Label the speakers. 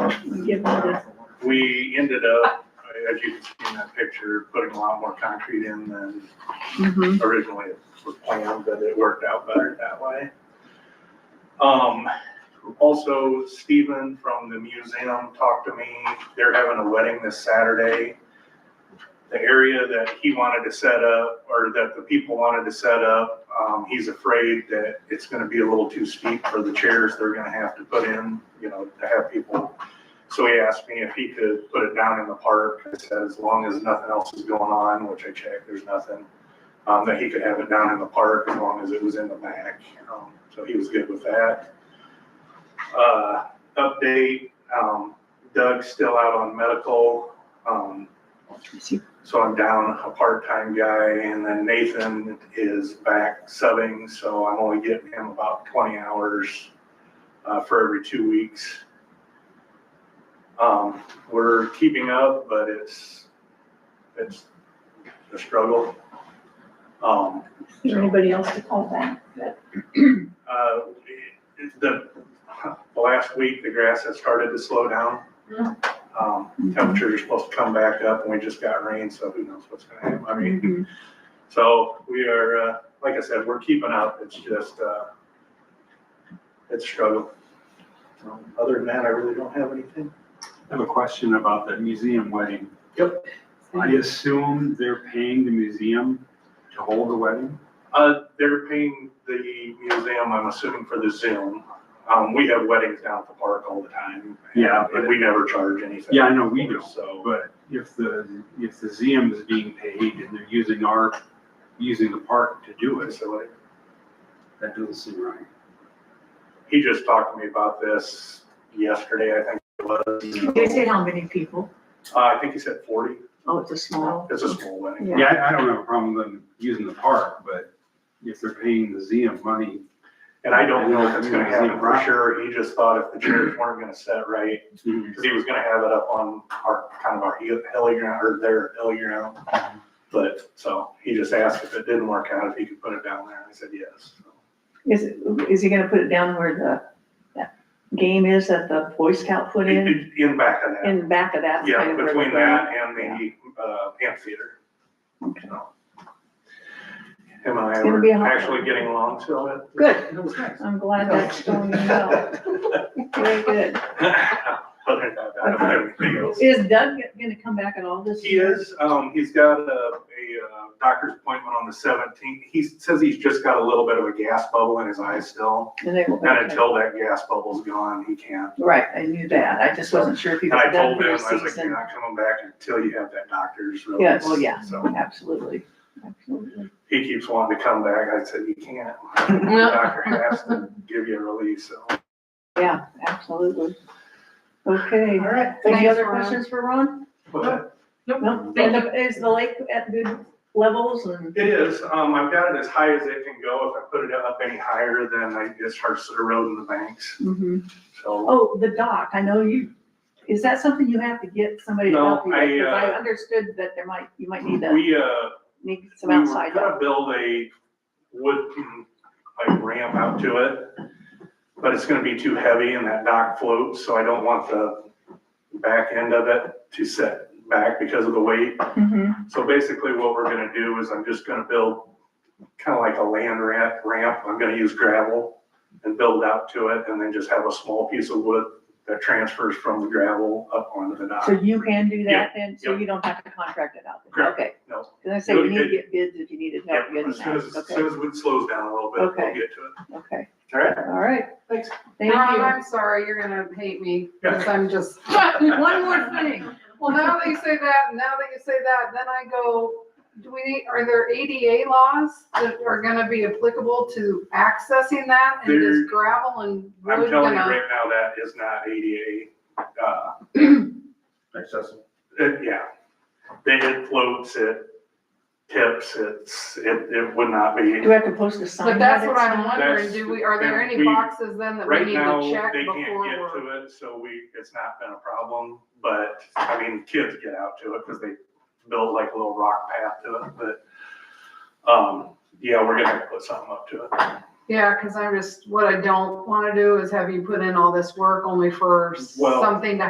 Speaker 1: and give them this.
Speaker 2: We ended up, as you can see in that picture, putting a lot more concrete in than Mm-hmm.
Speaker 1: Mhm.
Speaker 2: originally it was planned, but it worked out better that way. Um, also Stephen from the museum talked to me, they're having a wedding this Saturday. The area that he wanted to set up, or that the people wanted to set up, um, he's afraid that it's gonna be a little too steep for the chairs they're gonna have to put in, you know, to have people. So he asked me if he could put it down in the park, I said, as long as nothing else is going on, which I checked, there's nothing um, that he could have it down in the park as long as it was in the back. Um, so he was good with that. Uh, update, um, Doug's still out on medical. Um, so I'm down a part-time guy and then Nathan is back subbing, so I'm only getting him about twenty hours uh, for every two weeks. Um, we're keeping up, but it's, it's a struggle. Um,
Speaker 1: Is there anybody else to call back? But
Speaker 2: uh, it- the, the last week, the grass has started to slow down.
Speaker 1: Yeah.
Speaker 2: Um, temperatures are supposed to come back up and we just got rain, so who knows what's gonna happen. I mean,
Speaker 1: Mhm.
Speaker 2: so we are, uh, like I said, we're keeping up. It's just, uh, it's a struggle. Um, Other than that, I really don't have anything.
Speaker 3: I have a question about the museum wedding.
Speaker 2: Yep.
Speaker 3: I
Speaker 1: Mm-hmm.
Speaker 3: assume they're paying the museum to hold the wedding?
Speaker 2: Uh, they're paying the museum, I'm assuming, for the Zoom. Um, we have weddings down at the park all the time.
Speaker 3: Yeah,
Speaker 2: And
Speaker 3: but-
Speaker 2: we never charge anything.
Speaker 3: Yeah, I know we do.
Speaker 2: So.
Speaker 3: But if the, if the museum is being paid and they're using our, using the park to do it,
Speaker 2: Facility.
Speaker 3: that doesn't seem right.
Speaker 2: He just talked to me about this yesterday, I think it was.
Speaker 4: Did they say how many people?
Speaker 2: Uh, I think he said forty.
Speaker 4: Oh, it's a small.
Speaker 2: It's a small wedding.
Speaker 4: Yeah.
Speaker 3: Yeah, I, I don't have a problem with them using the park, but if they're paying the museum money,
Speaker 2: And I don't know if it's gonna happen for sure. He just thought if the chairs weren't gonna set right, because he was gonna have it up on our, kind of our hill hilly ground, or their hilly ground. But, so, he just asked if it didn't work out, if he could put it down there, and I said yes.
Speaker 1: Is, is he gonna put it down where the, that game is that the Boy Scout put in,
Speaker 2: In in back of that,
Speaker 1: in the back of that?
Speaker 2: yeah,
Speaker 1: kind of where
Speaker 2: between
Speaker 1: the-
Speaker 2: that and the, uh, amphitheater.
Speaker 1: Okay.
Speaker 2: Him and
Speaker 1: It's
Speaker 2: I
Speaker 1: gonna be a
Speaker 2: were
Speaker 1: hot one.
Speaker 2: actually getting along, so it,
Speaker 1: Good,
Speaker 2: it was nice.
Speaker 1: I'm glad that's going well. Very good.
Speaker 2: Other than that, I don't have anything else.
Speaker 1: Is Doug gonna come back at all this
Speaker 2: He
Speaker 1: year?
Speaker 2: is, um, he's got a, a uh, doctor's appointment on the seventeenth. He says he's just got a little bit of a gas bubble in his eye still.
Speaker 1: And they will.
Speaker 2: And until that gas bubble's gone, he can't.
Speaker 1: Right, I knew that. I just wasn't sure if he
Speaker 2: And
Speaker 1: was
Speaker 2: I
Speaker 1: done
Speaker 2: told
Speaker 1: for
Speaker 2: him, I
Speaker 1: the
Speaker 2: was like, you're
Speaker 1: season.
Speaker 2: not coming back until you have that doctor's release.
Speaker 1: Yeah, well, yeah.
Speaker 2: So
Speaker 1: Absolutely, absolutely.
Speaker 2: he keeps wanting to come back. I said, you can't. The
Speaker 1: No.
Speaker 2: doctor has to give you a release, so.
Speaker 1: Yeah, absolutely. Okay.
Speaker 4: All right.
Speaker 1: Any
Speaker 4: Thanks,
Speaker 1: other
Speaker 4: Ron.
Speaker 1: questions for Ron?
Speaker 2: But-
Speaker 1: No.
Speaker 4: Thank
Speaker 1: And the- Is the lake at good levels and,
Speaker 2: It is, um, I've got it as high as it can go. If I put it up any higher, then I, it starts to erode in the banks,
Speaker 1: Mhm.
Speaker 2: so.
Speaker 1: oh, the dock, I know you, is that something you have to get somebody to
Speaker 2: No,
Speaker 1: help you with? Because
Speaker 2: I,
Speaker 1: I
Speaker 2: uh,
Speaker 1: understood that there might, you might need to,
Speaker 2: We, uh,
Speaker 1: need some
Speaker 2: we were
Speaker 1: outside help.
Speaker 2: gonna build a wooden, like ramp out to it, but it's gonna be too heavy and that dock floats, so I don't want the back end of it to set back because of the weight.
Speaker 1: Mhm.
Speaker 2: So basically what we're gonna do is I'm just gonna build kind of like a land ramp, ramp. I'm gonna use gravel and build out to it and then just have a small piece of wood that transfers from the gravel up onto the dock.
Speaker 1: So you can do that then, so
Speaker 2: yeah.
Speaker 1: you don't have to contract it out?
Speaker 2: Correct.
Speaker 1: Okay,
Speaker 2: No.
Speaker 1: because I say
Speaker 2: Do
Speaker 1: you
Speaker 2: it
Speaker 1: need to get bids if you needed help
Speaker 2: Yep,
Speaker 1: getting
Speaker 2: As soon as,
Speaker 1: that,
Speaker 2: as
Speaker 1: okay,
Speaker 2: soon as it slows down a little bit, we'll
Speaker 1: Okay.
Speaker 2: get to it.
Speaker 1: okay,
Speaker 2: All right?
Speaker 1: all right.
Speaker 2: Thanks.
Speaker 1: Thank
Speaker 5: Ron,
Speaker 1: you.
Speaker 5: I'm sorry, you're gonna hate me, because I'm just, one more thing. Well, now that you say that, now that you say that, then I go, do we need, are there ADA laws that are gonna be applicable to accessing that? And
Speaker 2: There-
Speaker 5: is gravel and
Speaker 2: I'm
Speaker 5: wood
Speaker 2: telling you
Speaker 5: gonna?
Speaker 2: right now, that is not ADA, uh,
Speaker 3: Accessible.
Speaker 2: it- yeah. They, it floats, it tips, it's, it, it would not
Speaker 1: Do
Speaker 2: be.
Speaker 1: we have to post a sign?
Speaker 5: But that's
Speaker 1: that
Speaker 5: what
Speaker 1: it's
Speaker 5: I'm
Speaker 1: not?
Speaker 5: wondering,
Speaker 2: That's-
Speaker 5: do we, are there
Speaker 2: that
Speaker 5: any
Speaker 2: we-
Speaker 5: boxes then that we
Speaker 2: Right
Speaker 5: need
Speaker 2: now,
Speaker 5: to check
Speaker 2: they
Speaker 5: before
Speaker 2: can't get
Speaker 5: we're?
Speaker 2: to it, so we, it's not been a problem, but, I mean, kids get out to it, cause they build like a little rock path to it, but, um, yeah, we're gonna have to put something up to it.
Speaker 5: Yeah, because I'm just, what I don't wanna do is have you put in all this work only for
Speaker 2: Well-
Speaker 5: something to